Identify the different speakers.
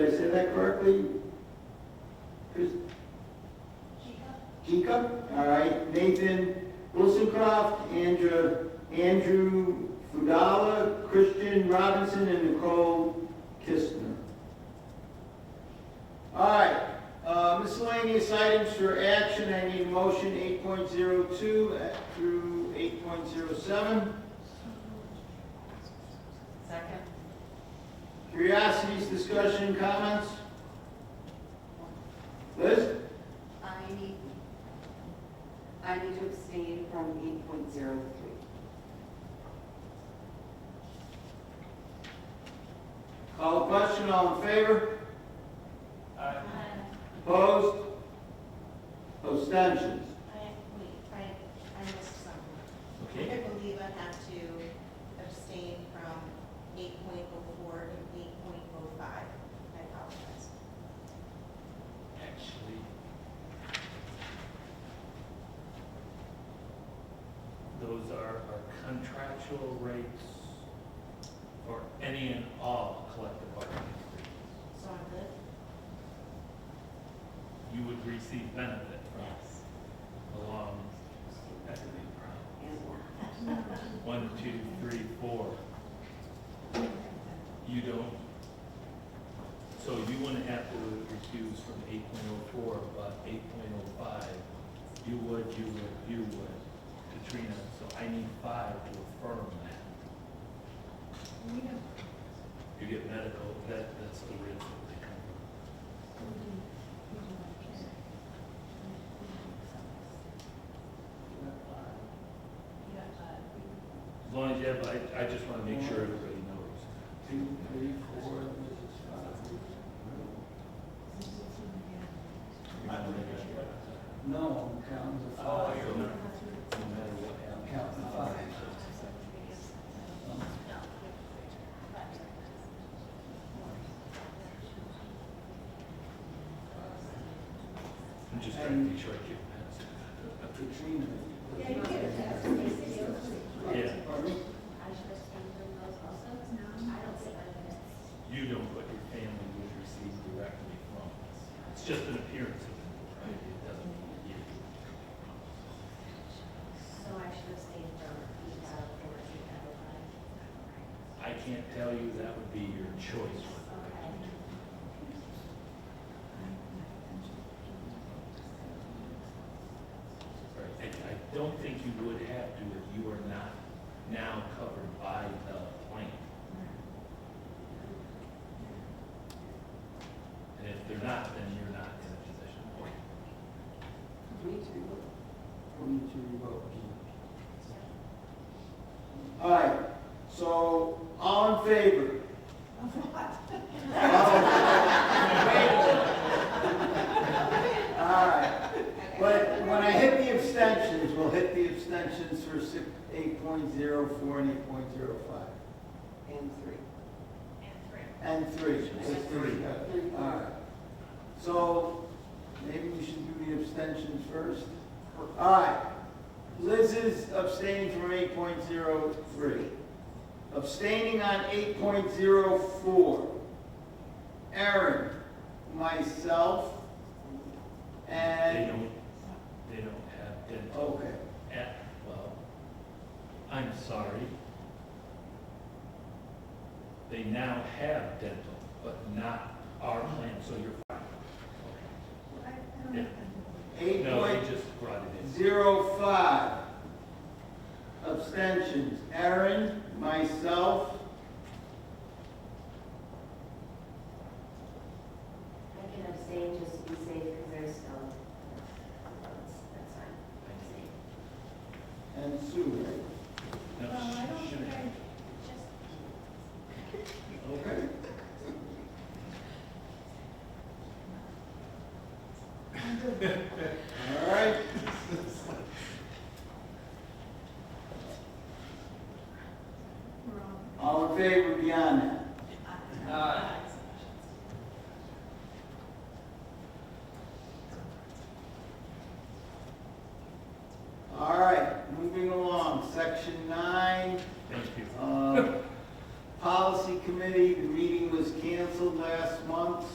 Speaker 1: Did I say that correctly? Chris? Kika? All right, Nathan Wilsoncroft, Andrew, Andrew Fudala, Christian Robinson, and Nicole Kistner. All right, uh, miscellaneous items for action, I need motion eight point zero two uh, through eight point zero seven.
Speaker 2: Second.
Speaker 1: Curiosities, discussion, comments? Liz?
Speaker 2: I need, I need to abstain from eight point zero three.
Speaker 1: Call the question, all in favor?
Speaker 3: Aye.
Speaker 1: Opposed? Abstentions?
Speaker 4: I, wait, I, I missed something.
Speaker 3: Okay,
Speaker 4: I believe I have to abstain from eight point oh four and eight point oh five. I apologize.
Speaker 3: actually, those are our contractual rates for any and all collective bargaining agreements.
Speaker 4: So I'm good?
Speaker 3: You would receive benefit
Speaker 4: Yes.
Speaker 3: from along, that could be a problem. One, two, three, four. You don't, so you wouldn't have to recuse from eight point oh four, but eight point oh five, you would, you would, you would, Katrina, so I need five to affirm that. You get medical, that, that's the risk that they come from. As long as you have, I, I just wanna make sure everybody knows.
Speaker 1: Two, three, four.
Speaker 5: No, I'm counting the five.
Speaker 3: So, No matter what
Speaker 5: I'm
Speaker 3: happens.
Speaker 5: counting the five.
Speaker 3: I'm just trying to be sure I get that.
Speaker 5: Katrina.
Speaker 3: Yeah,
Speaker 1: Pardon me?
Speaker 3: you don't, but your family would receive directly from us. It's just an appearance of it, right? It doesn't mean you.
Speaker 4: So I should abstain from eight out of four, eight out of five.
Speaker 3: I can't tell you, that would be your choice. Right, And I don't think you would have to if you are not now covered by the plan. And if they're not, then you're not in a position.
Speaker 2: We need to remove.
Speaker 5: We need to revoke.
Speaker 1: All right, so, all in favor? All right, but when I hit the abstentions, we'll hit the abstentions for six, eight point zero four and eight point zero five.
Speaker 2: and three.
Speaker 1: And three. It's three.
Speaker 2: Three.
Speaker 1: All right. So maybe we should do the abstentions first. All right. Liz is abstaining from eight point zero three. Abstaining on eight point zero four. Aaron, myself,
Speaker 3: They
Speaker 1: and,
Speaker 3: don't, they don't have dental
Speaker 1: okay.
Speaker 3: at, well, I'm sorry. They now have dental, but not our plan, so you're fine.
Speaker 1: Eight
Speaker 3: No,
Speaker 1: point
Speaker 3: they just brought it in.
Speaker 1: Zero five. Abstentions, Aaron, myself.
Speaker 6: I can abstain just to be safe because there's still, that's, that's fine.
Speaker 1: And
Speaker 6: Abstain.
Speaker 1: Sue, right?
Speaker 3: No,
Speaker 4: Well, I don't
Speaker 3: shouldn't
Speaker 4: think I-
Speaker 3: have.
Speaker 4: Just
Speaker 1: Okay. uh,